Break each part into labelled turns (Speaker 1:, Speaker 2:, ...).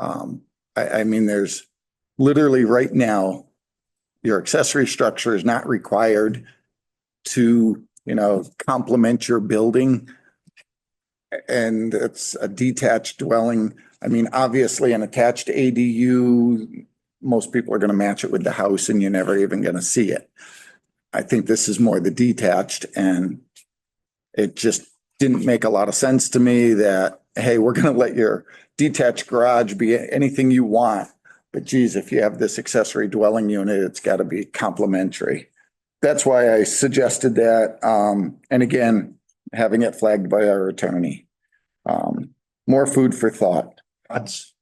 Speaker 1: Um, I, I mean, there's literally right now, your accessory structure is not required to, you know, complement your building. And it's a detached dwelling. I mean, obviously an attached ADU, most people are going to match it with the house and you're never even going to see it. I think this is more the detached and it just didn't make a lot of sense to me that, hey, we're going to let your detached garage be anything you want. But geez, if you have this accessory dwelling unit, it's got to be complementary. That's why I suggested that. Um, and again, having it flagged by our attorney. Um, more food for thought.
Speaker 2: That's,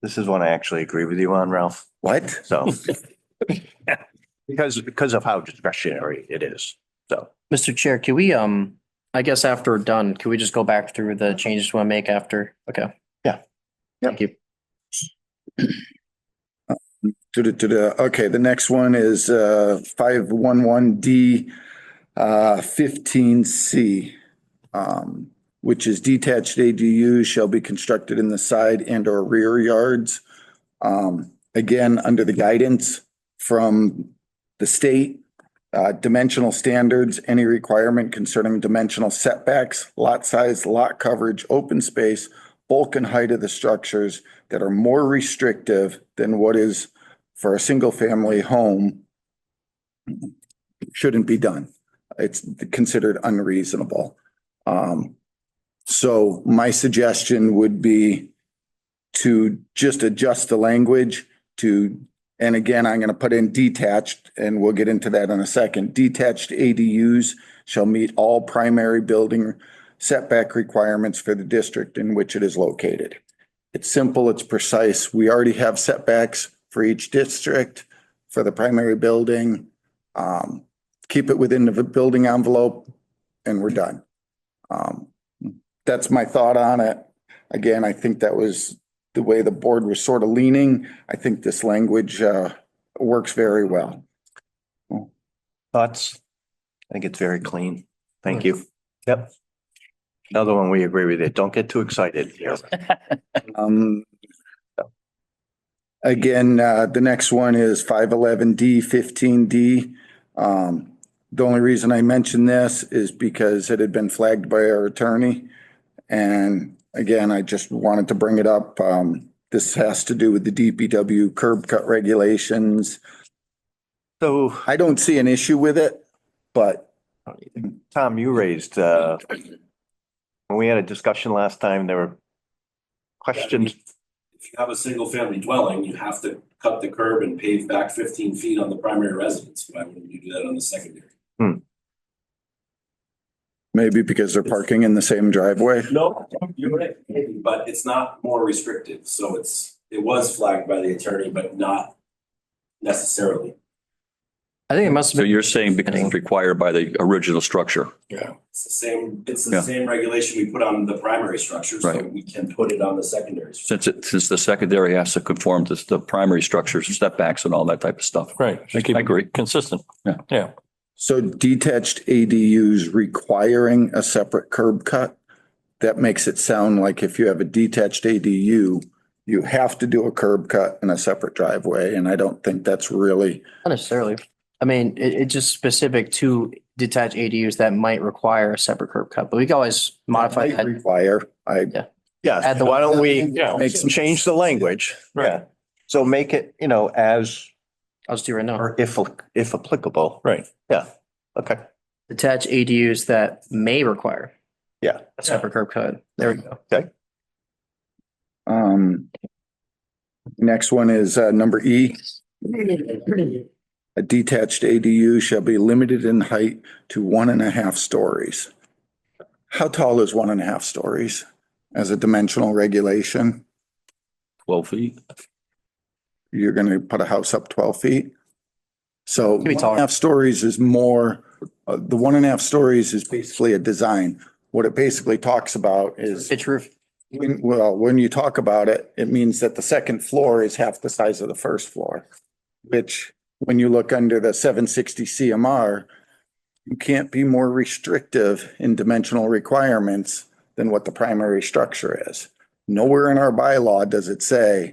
Speaker 2: this is one I actually agree with you on, Ralph,
Speaker 1: What?
Speaker 2: so. Because, because of how discretionary it is, so.
Speaker 3: Mr. Chair, can we, um, I guess after we're done, can we just go back through the changes we want to make after? Okay.
Speaker 2: Yeah.
Speaker 3: Thank you.
Speaker 1: To the, to the, okay, the next one is, uh, five one one D, uh, fifteen C. Um, which is detached ADUs shall be constructed in the side and or rear yards. Um, again, under the guidance from the state, uh, dimensional standards, any requirement concerning dimensional setbacks, lot size, lot coverage, open space, bulk and height of the structures that are more restrictive than what is for a single family home shouldn't be done. It's considered unreasonable. Um, so my suggestion would be to just adjust the language to, and again, I'm going to put in detached and we'll get into that in a second. Detached ADUs shall meet all primary building setback requirements for the district in which it is located. It's simple, it's precise. We already have setbacks for each district, for the primary building. Um, keep it within the building envelope and we're done. Um, that's my thought on it. Again, I think that was the way the board was sort of leaning. I think this language, uh, works very well.
Speaker 2: Thoughts? I think it's very clean. Thank you. Yep. Another one, we agree with it. Don't get too excited here.
Speaker 1: Um, again, uh, the next one is five eleven D fifteen D. Um, the only reason I mentioned this is because it had been flagged by our attorney. And again, I just wanted to bring it up. Um, this has to do with the DPW curb cut regulations.
Speaker 2: So,
Speaker 1: I don't see an issue with it, but
Speaker 2: Tom, you raised, uh, when we had a discussion last time, there were questions.
Speaker 4: if you have a single family dwelling, you have to cut the curb and pave back fifteen feet on the primary residence. Why wouldn't you do that on the secondary?
Speaker 1: maybe because they're parking in the same driveway.
Speaker 4: No, you're right. maybe, But it's not more restrictive, so it's, it was flagged by the attorney, but not necessarily.
Speaker 3: I think it must
Speaker 5: So
Speaker 3: have been,
Speaker 5: you're saying because it's required by the original structure?
Speaker 4: It's the same, it's
Speaker 5: Yeah.
Speaker 4: the same regulation we put on the primary structure, so
Speaker 5: Right.
Speaker 4: we can put it on the secondary. structure.
Speaker 5: Since it, since the secondary has to conform to the primary structures, step backs and all that type of stuff.
Speaker 6: Right. They keep
Speaker 5: I agree.
Speaker 6: it consistent.
Speaker 1: So detached ADUs requiring a separate curb cut? That makes it sound like if you have a detached ADU, you have to do a curb cut and a separate driveway, and I don't think that's really,
Speaker 3: not necessarily. I mean, it, it's just specific to detached ADUs that might require a separate curb cut, but we can always modify
Speaker 1: might
Speaker 3: that.
Speaker 1: require, I,
Speaker 2: Yeah,
Speaker 3: Add the-
Speaker 2: why don't we
Speaker 6: Yeah.
Speaker 1: Makes-
Speaker 2: change the language?
Speaker 6: Right.
Speaker 2: Yeah. So make it, you know, as
Speaker 3: I'll just do it right now.
Speaker 2: Or if, if applicable.
Speaker 6: Right.
Speaker 2: Okay.
Speaker 3: Detached ADUs that may require.
Speaker 2: Yeah.
Speaker 3: A separate curb cut. There we go.
Speaker 1: um. Next one is, uh, number E. A detached ADU shall be limited in height to one and a half stories. How tall is one and a half stories as a dimensional regulation?
Speaker 5: Twelve feet?
Speaker 1: you're gonna put a house up twelve feet. So
Speaker 3: Can be
Speaker 1: one and a
Speaker 3: taller.
Speaker 1: half stories is more, uh, the one and a half stories is basically a design. What it basically talks about is,
Speaker 3: Pitch roof.
Speaker 1: when- well, when you talk about it, it means that the second floor is half the size of the first floor. Which, when you look under the seven sixty CMR, you can't be more restrictive in dimensional requirements than what the primary structure is. Nowhere in our bylaw does it say